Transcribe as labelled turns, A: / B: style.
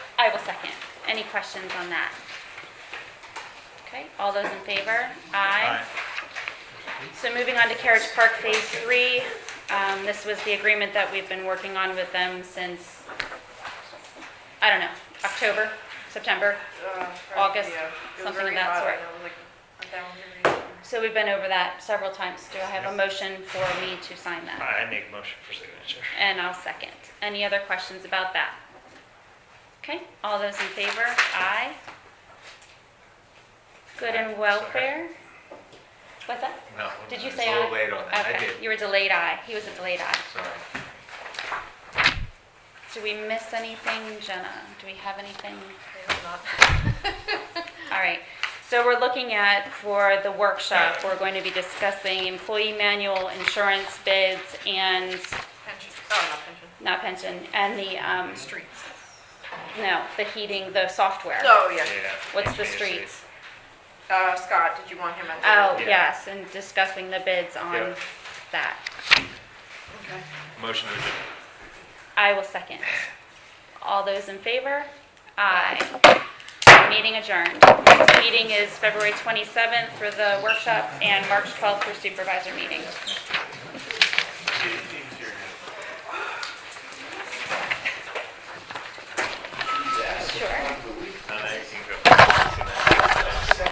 A: I will second. Any questions on that? Okay, all those in favor? Aye. So moving on to Carriage Park Phase Three, um, this was the agreement that we've been working on with them since, I don't know, October, September?
B: uh, probably,
A: August,
B: yeah. It was
A: something of
B: very
A: that
B: hot,
A: sort.
B: and I was like, I'm down with everything.
A: So we've been over that several times. Do I have a motion for me to sign that?
C: I make motion for signature.
A: And I'll second. Any other questions about that? Okay, all those in favor? Aye. Good and welfare? What's that?
D: No.
A: Did
D: I
A: you
D: was
A: say
D: a
A: aye?
D: little late on that. I
A: Okay,
D: did.
A: You were delayed aye. He was a delayed aye.
D: Sorry.
A: Do we miss anything, Jenna? Do we have anything?
B: I hope not.
A: All right, so we're looking at, for the workshop, we're going to be discussing employee manual, insurance bids, and,
B: Pension, oh, not pension,
A: not pension, and the, um,
B: streets.
A: no, the heating, the software.
B: Oh, yeah.
C: Yeah.
A: What's the
C: HVAC.
A: streets?
B: Uh, Scott, did you want him at
A: Oh,
B: the?
C: Yeah.
A: yes, and discussing the bids on
C: Yeah.
A: that. Oh.
B: Okay.
D: Motion to adjourn.
A: I will second. All those in favor? Aye. Meeting adjourned. Next meeting is February 27th for the workshop and March 12th for supervisor meeting.